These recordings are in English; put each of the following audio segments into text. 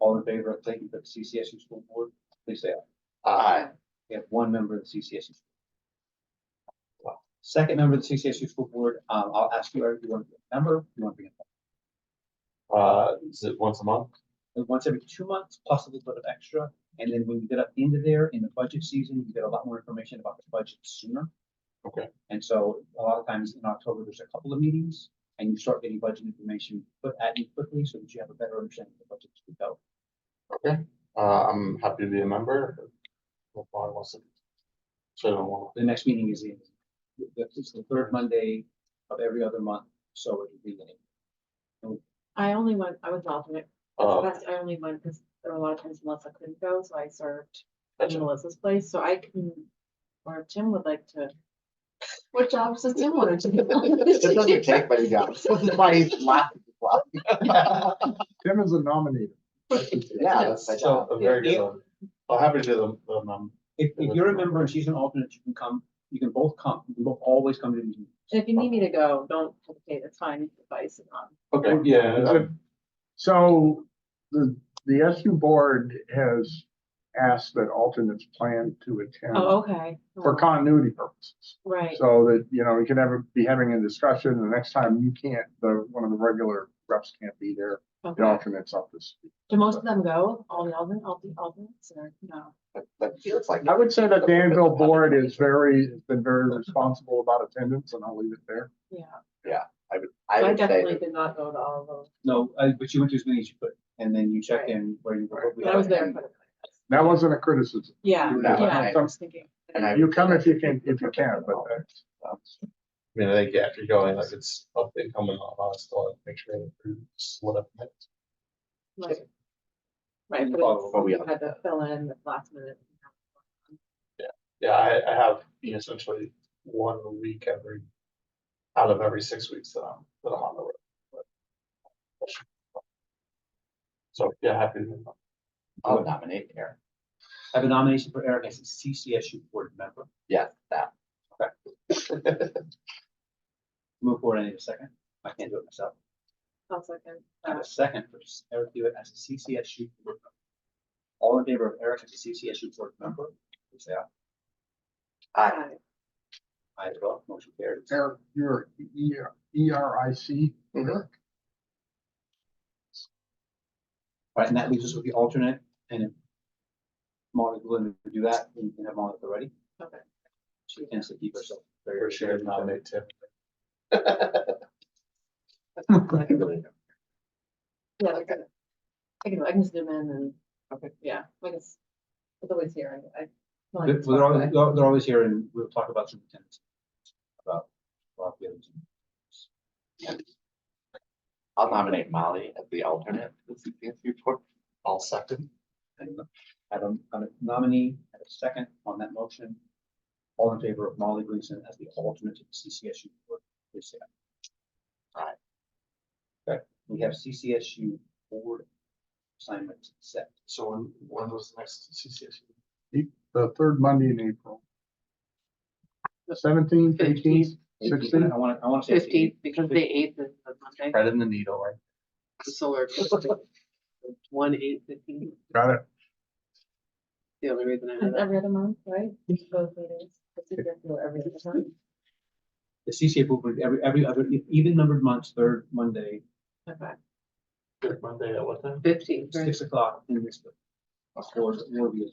All in favor of taking the CCSU school board, please say aye. Aye. We have one member of the CCSU. school board. Wow. Second member of the CCSU school board, um, I'll ask you, Eric, you want to be a member, you want to be Uh, is it once a month? a, and once every two months, plus a little bit of extra. And then when you get up into there in the budget season, you get a lot more information about the budget sooner. Okay. And so a lot of times in October, there's a couple of meetings and you start getting budget information put at you quickly so that you have a better understanding of the budget as we go. Okay, uh, I'm happy to be a member. If I wasn't. So I don't want, The next meeting is in, it's the third Monday of every other month, so it would be the I only went, I was an alternate, uh, that's, I only went because there were a lot of times Melissa couldn't go, so I served in gotcha. Melissa's place, so I can, or if Tim would like to. What jobs does Tim want to It doesn't do? take many jobs. That's why he's laughing. Tim is a nominator. Yeah, that's my So- job. A very good one. I'm Oh, happy to do the, the, mem- If, if you're a member and she's an alternate, you can come, you can both come, you can both always come to these meetings. And If you need me to go, don't hesitate, it's fine, advice and not. okay, yeah, I'm- So the, the SU board has asked that alternates plan to attend Oh, okay. for continuity purposes. Right, So that, you know, we can ever be having a discussion and the next time you can't, the, one of the regular reps can't be there, the okay. alternates up this. Do most of them go, all the alden, all the alternates, or no? That- That feels like. I would say that Danville board is very, has been very responsible about attendance and I'll leave it there. Yeah, I I would say definitely that- did not go to all of those, No, uh, but you went to as many as you could, and then you checked in where you were. but I was there for the. That wasn't a criticism. Yeah, No, yeah, I I- was thinking. and I- You come if you can, if you can, but uh, that's. I mean, I think yeah, if you're going, like it's up and coming on, I'll still make sure it proves what I've meant. Right, Right, And but follow what we it's- have. had to fill in the last minute. Yeah, I, I have you know, essentially one week every, out of every six weeks that I'm, that I'm on the road. but- So, yeah, happy to. be a member. I'll nominate Aaron. I have a nomination for Eric as a CCSU board member. Yeah, that. Move forward, I need a second. I can't do it myself. I'll second. Uh, I have a second for Eric Hewitt as a CCSU board member. All in favor of Eric as a CCSU board member, please say aye. I, Aye, as well, motion carries. Eric, you're E R, E R I C. Mhm. Right, and that leaves us with the alternate, and if Molly willing to do that, then you can have Molly already. Okay. She can keep herself. very- Or should I nominate Tim? Yeah, I can, I can, I can zoom in and, okay, yeah, I guess. It's always here, I, I. well, I They're, can they're talk always, back. they're they're always here and we'll talk about superintendents. About. about the others. I'll nominate Molly as the alternate. to the CCSU board. I'll second. And I don't, I'm a nominee, I have a second on that motion. All in favor of Molly Gleason as the alternate to the CCSU board, please say aye. Aye. Okay, we have CCSU board assignment set. So when, when was the next CCSU? the third Monday in April. Seventeenth, eighteenth, Sixteen, sixteenth, I want, I want to say. it's Fifteenth, because the eighth is the Monday, Thread in the needle, right? the solar. eclipse. One eight fifteen, got it. the only reason I know And that. Every other month, right? Both meetings. It's a good deal every other month. The CCSU board, every, every other, e, even numbered months, third Monday, Okay. Third Monday at what time? Fifteen, six o'clock in this. Or, or the.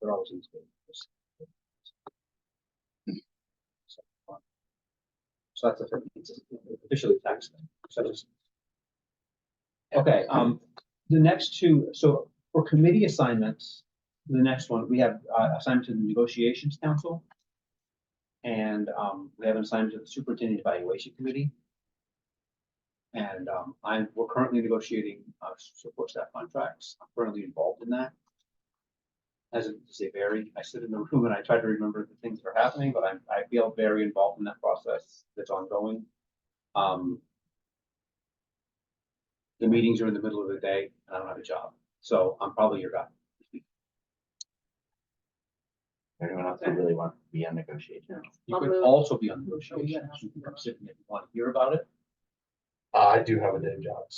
They're always in school. So um, so that's a- it's officially taxed. so it's- Okay, um, the next two, so for committee assignments, the next one, we have uh, assignment to the negotiations council. And um, we have an assignment to the superintendent evaluation committee. And um, I'm, we're currently negotiating uh, support staff contracts. I'm currently involved in that. As it- as they vary, I sit in the room and I try to remember the things that are happening, but I'm, I feel very involved in that process that's ongoing. Um. The meetings are in the middle of the day and I don't have a job, so I'm probably your guy. Anyone else who really wants to be on negotiation? You I'll could move. also be on Oh, yeah. negotiations. You can come sit and if you want to hear about it. Uh, I do have a day job,